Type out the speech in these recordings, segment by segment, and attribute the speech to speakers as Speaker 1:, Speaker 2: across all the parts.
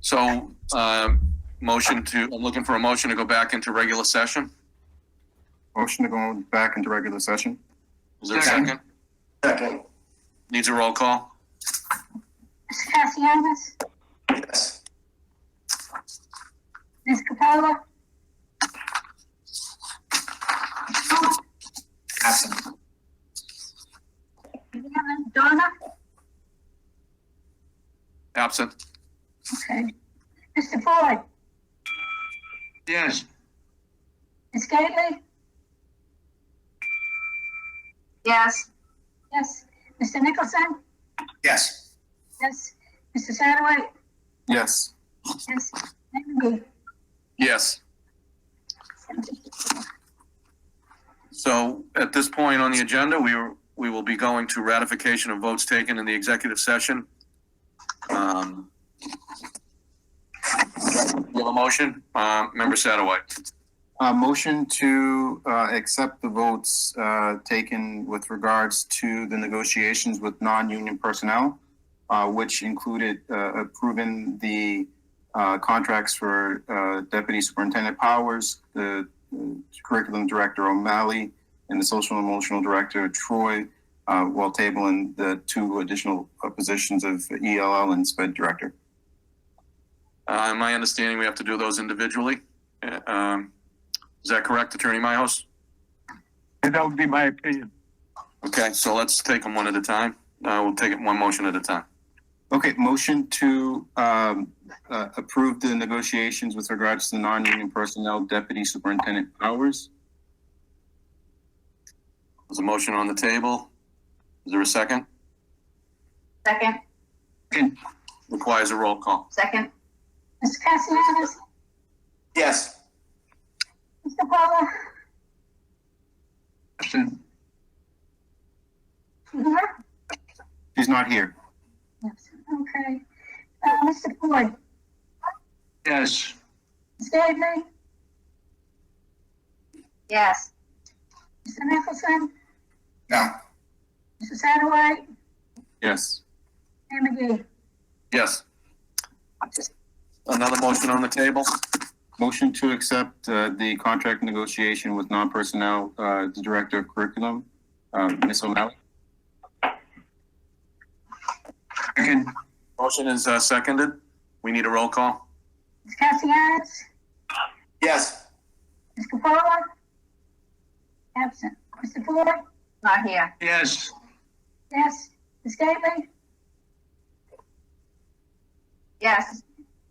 Speaker 1: So, um, motion to, I'm looking for a motion to go back into regular session.
Speaker 2: Motion to go back into regular session?
Speaker 1: Is there a
Speaker 2: Second.
Speaker 1: second?
Speaker 2: Second.
Speaker 1: Needs a roll call?
Speaker 3: Mr. Cassianis?
Speaker 2: Yes.
Speaker 3: Ms. Capola?
Speaker 2: Absent.
Speaker 3: Donna?
Speaker 1: Absent?
Speaker 3: Okay. Mr. Floyd?
Speaker 1: Yes.
Speaker 3: Ms. Gately? Yes. Yes. Mr. Nicholson?
Speaker 2: Yes.
Speaker 3: Yes. Mr. Satterwhite?
Speaker 2: Yes.
Speaker 3: Yes. Mayor
Speaker 1: Yes.
Speaker 3: McGee?
Speaker 1: So at this point on the agenda, we, are- we will be going to ratification of votes taken in the executive session. Um, you have a motion, uh, member Satterwhite?
Speaker 2: Uh, motion to, uh, accept the votes, uh, taken with regards to the negotiations with non-union personnel, uh, which included, uh, approving the, uh, contracts for, uh, Deputy Superintendent Powers, the uh, Curriculum Director O'Malley, and the Social and Emotional Director Troy, uh, while tabling the two additional uh, positions of ELL and SPED Director.
Speaker 1: Uh, my understanding, we have to do those individually. Uh, Um, is that correct, Attorney Myhouse?
Speaker 4: And that would be my opinion.
Speaker 1: Okay, so let's take them one at a time. Uh, we'll take it one motion at a time.
Speaker 2: Okay, motion to um, uh, approve the negotiations with regards to the non-union personnel deputy superintendent powers.
Speaker 1: There's a motion on the table. Is there a second?
Speaker 3: Second.
Speaker 1: Requires a roll call.
Speaker 3: Second. Mr. Cassianis?
Speaker 2: Yes.
Speaker 3: Mr. Capola? You here?
Speaker 2: He's not here.
Speaker 3: Yes. Okay. Uh, Mr. Floyd?
Speaker 4: Yes.
Speaker 3: Ms. Gately? Yes. Mr. Nicholson?
Speaker 2: No.
Speaker 3: Mr. Satterwhite?
Speaker 2: Yes.
Speaker 3: Mayor McGee?
Speaker 1: Yes. Another motion on the table.
Speaker 2: Motion to accept uh, the contract negotiation with non-personnel, uh, the director of curriculum, uh, Ms. O'Malley. Second.
Speaker 1: Motion is uh, seconded. We need a roll call.
Speaker 3: Ms. Cassianis?
Speaker 2: Yes.
Speaker 3: Ms. Capola? Absent. Mr. Floyd? Not here.
Speaker 4: Yes.
Speaker 3: Yes. Ms. Gately? Yes.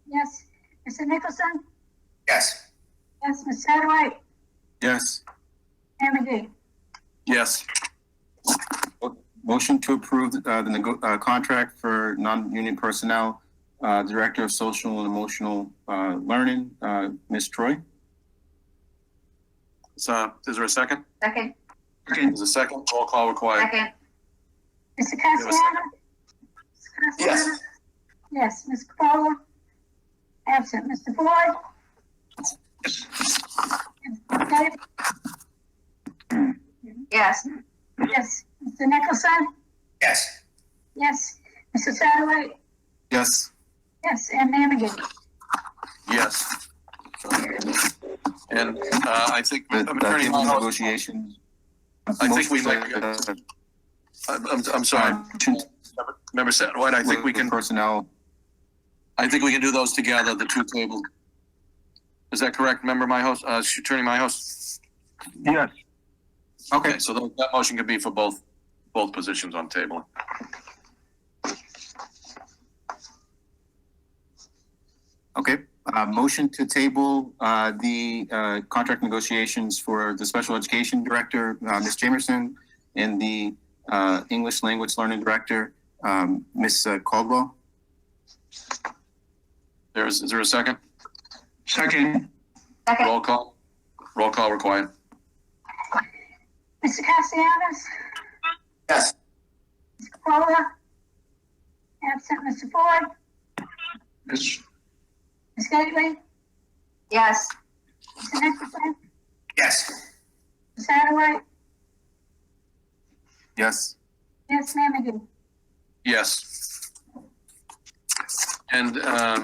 Speaker 3: Yes. Mr. Nicholson?
Speaker 2: Yes.
Speaker 3: Yes. Ms. Satterwhite?
Speaker 2: Yes.
Speaker 3: Mayor McGee?
Speaker 1: Yes.
Speaker 2: Motion to approve uh, the nego- uh, contract for non-union personnel, uh, Director of Social and Emotional uh, Learning, uh, Ms. Troy.
Speaker 1: So, is there a second?
Speaker 3: Second.
Speaker 1: There's a second. Roll call required.
Speaker 3: Mr.
Speaker 1: a
Speaker 3: Cassiano?
Speaker 1: second.
Speaker 3: Yes. Yes, Ms. Capola? Absent. Mr. Floyd? Ms. Gately?
Speaker 5: Yes,
Speaker 3: Yes. Mr. Nicholson?
Speaker 2: Yes.
Speaker 3: Yes. Mr. Satterwhite?
Speaker 2: Yes.
Speaker 3: Yes, and Mayor McGee?
Speaker 1: Yes. And uh, I think,
Speaker 2: The-
Speaker 1: Attorney
Speaker 2: the
Speaker 1: Myhouse,
Speaker 2: negotiations.
Speaker 1: I think we might-
Speaker 2: Motion to-
Speaker 1: I'm, I'm- I'm sorry, member Satterwhite, I think we can,
Speaker 2: Personnel,
Speaker 1: I think we can do those together, the two tables. Is that correct, member Myhouse, uh, Attorney Myhouse?
Speaker 4: Yes.
Speaker 1: Okay, so tho- that motion could be for both, both positions on table.
Speaker 2: okay. Uh, Motion to table uh, the uh, contract negotiations for the Special Education Director, uh, Ms. Jamerson, and the uh, English Language Learning Director, um, Ms. Caldwell.
Speaker 1: There is, is there a second?
Speaker 4: Second.
Speaker 5: second,
Speaker 1: Roll call? Roll call required.
Speaker 3: Mr. Cassianis?
Speaker 2: Yes.
Speaker 3: Ms. Capola? Absent. Mr. Floyd?
Speaker 4: Yes.
Speaker 3: Ms. Gately?
Speaker 5: yes,
Speaker 3: Mr. Nicholson?
Speaker 2: Yes.
Speaker 3: Ms. Satterwhite?
Speaker 2: Yes.
Speaker 3: Yes, Mayor McGee?
Speaker 1: Yes. And, um,